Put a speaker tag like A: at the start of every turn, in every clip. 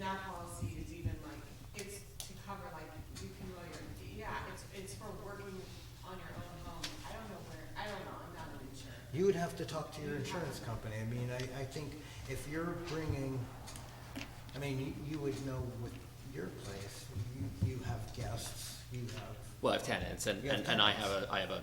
A: that policy is even like, it's to cover like, you can mow your, yeah, it's, it's for working on your own home. I don't know where, I don't know, I'm not an insurer.
B: You would have to talk to your insurance company. I mean, I, I think if you're bringing, I mean, you, you would know with your place, you, you have guests, you have
C: Well, I have tenants, and,
B: You have
C: and and I have
B: tenants.
C: a, I have a,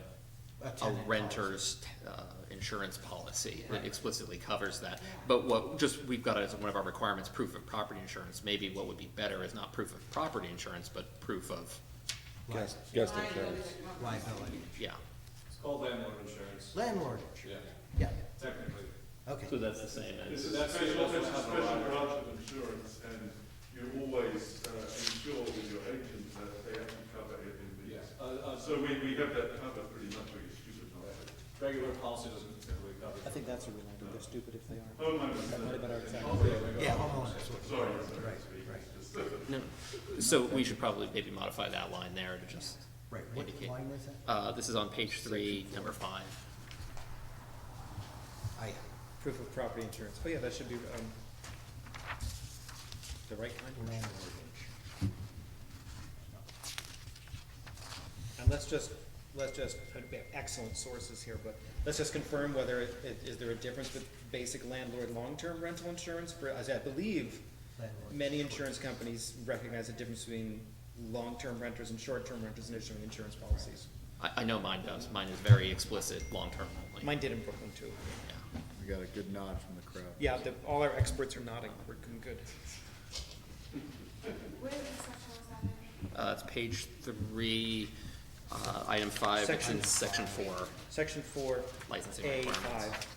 B: a
C: a
B: tenant.
C: renter's, uh, insurance policy that
B: Yeah.
C: explicitly covers that.
A: Yeah.
C: But what, just, we've got it as one of our requirements, proof of property insurance, maybe what would be better is not proof of property insurance, but proof of,
B: li-
D: Guest, guest
A: Liability
D: insurance.
A: that covers-
B: Liability.
C: yeah.
E: It's called landlord insurance,
B: Landlord,
E: yeah,
B: yeah,
E: technically.
B: okay.
C: that's the same
F: It's a
E: That's-
F: special,
E: that's
F: it's a
E: what
F: special
E: happened.
F: branch of insurance, and you always uh, ensure with your agent that they actually cover everything.
E: Uh, uh, so
F: So we, we have that covered pretty much, we're stupid not to.
E: regular policy doesn't typically cover.
G: I think that's a real idea, they're stupid if they
D: Oh.
G: aren't.
F: Homeowners.
G: That might have been our exact-
B: Yeah, homeowners. would-
F: Sorry, sorry.
B: Right, right,
C: No, so we should probably maybe modify that line there to just,
B: right. What
C: Indicate.
B: line was that?
C: uh, this is on page three, number five.
B: I,
D: Proof of property insurance. Oh, yeah, that should be, um, the right kind.
B: landlord.
D: And let's just, let's just, we have excellent sources here, but let's just confirm whether, it- it- is there a difference with basic landlord long-term rental insurance? For, as I believe,
B: Landlord.
D: many insurance companies recognize the difference between long-term renters and short-term renters in issuing insurance policies.
C: I, I know mine does, mine is very explicit, long-term only.
D: Mine did in Brooklyn too.
C: Yeah.
H: We got a good nod from the crowd.
D: Yeah, the, all our experts are nodding, we're doing good.
A: Where is section was that in?
C: Uh, it's page three, uh, item five, which
D: Section-
C: is section four,
D: Section four,
C: licensing
D: A
C: requirements.
D: five.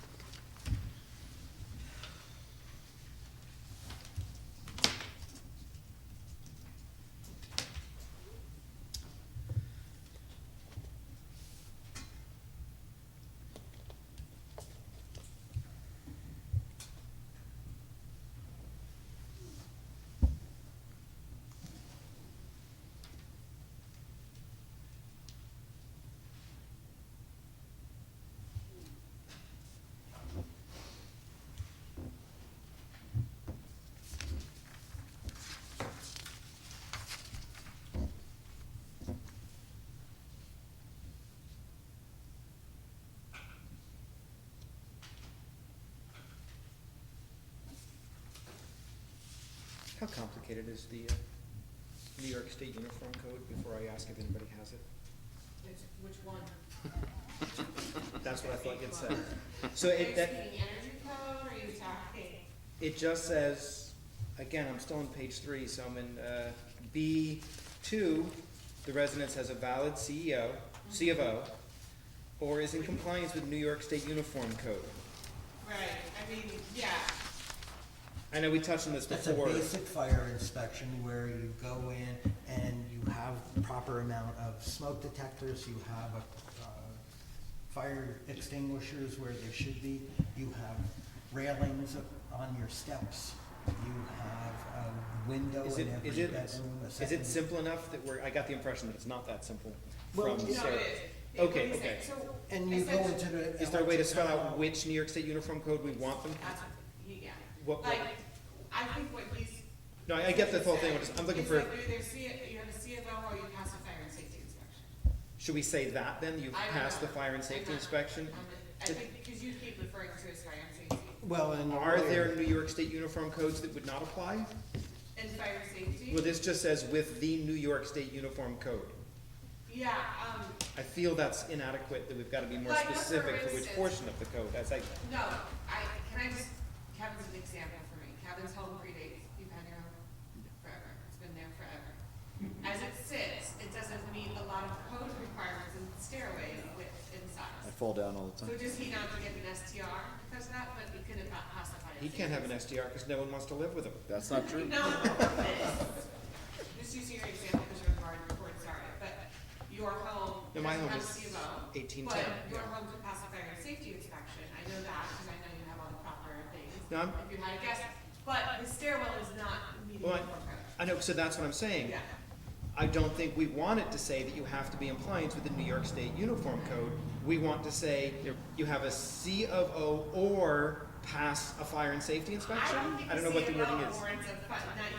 D: How complicated is the uh, New York State Uniform Code before I ask if anybody has it?
A: Which, which one?
D: That's what I thought it said. So it,
A: Are you
D: that,
A: speaking energy code, or are you talking?
D: it just says, again, I'm still on page three, so I'm in, uh, B two, the residence has a valid CEO, C of O, or is in compliance with New York State Uniform Code.
A: Right, I mean, yeah,
D: I know we touched on this
B: That's a
D: before.
B: basic fire inspection where you go in and you have the proper amount of smoke detectors, you have a, uh, fire extinguishers where they should be, you have railings on your steps, you have a window
D: Is it,
B: in every
D: is it,
B: bedroom, a
D: is
B: second-
D: it simple enough that we're, I got the impression that it's not that simple
B: Well,
A: no,
D: from
A: it is.
B: yeah.
D: Sarah.
A: It- what
D: Okay,
A: he's saying,
D: okay.
A: So
B: And you go into
A: essentially,
B: the.
D: Is there a way to spell out
B: electrical-
D: which New York State Uniform Code we want them?
A: that's what he- yeah.
D: What- what-
A: Like, I think what he's.
D: No, I I get the whole thing, I'm just- I'm looking for,
A: It's like you either see it, you have a CFO or you pass a fire and safety inspection.
D: should we say that then, you've
A: I don't
D: passed the
A: know.
D: fire and
A: I'm
D: safety
A: not-
D: inspection?
A: I'm not- I think because you keep referring to it as fire and safety.
B: Well, and.
D: Are there New York State uniform codes that would not apply?
A: And fire safety?
D: Well, this just says with the New York State uniform code.
A: Yeah, um,
D: I feel that's inadequate, that we've gotta be more
A: Like, for
D: specific to which
A: instance-
D: portion of the code, as I,
A: no, I, can I just, Kevin's an example for me. Kevin's home predates, you've had your home forever. It's been there forever. As it sits, it doesn't meet a lot of code requirements and stairway width and
H: I
A: size.
H: fall down all the
A: So
H: time.
A: does he not get an STR because of that, but he couldn't pa- pass the fire
D: he can't have an SDR, cause no one wants to live with him.
H: That's not true.
A: No, this. just using your example because your garden reports are it, but your home doesn't
D: No, my
A: have
D: home
A: a
D: is
A: CMO.
D: 1810,
A: But your
D: yeah.
A: home could pass a fire and safety inspection, I know that, because I know you have all the proper things.
D: No, I'm-
A: If you had a guest, but the stairwell is not meeting the
D: Well, I-
A: code.
D: I know, so that's what I'm saying.
A: Yeah,
D: I don't think we want it to say that you have to be in compliance with the New York State Uniform Code. We want to say you have a C of O or pass a fire and safety
A: I
D: inspection?
A: don't think
D: I don't
A: the
D: know what the wording is.
A: CMO warrants a, fi- not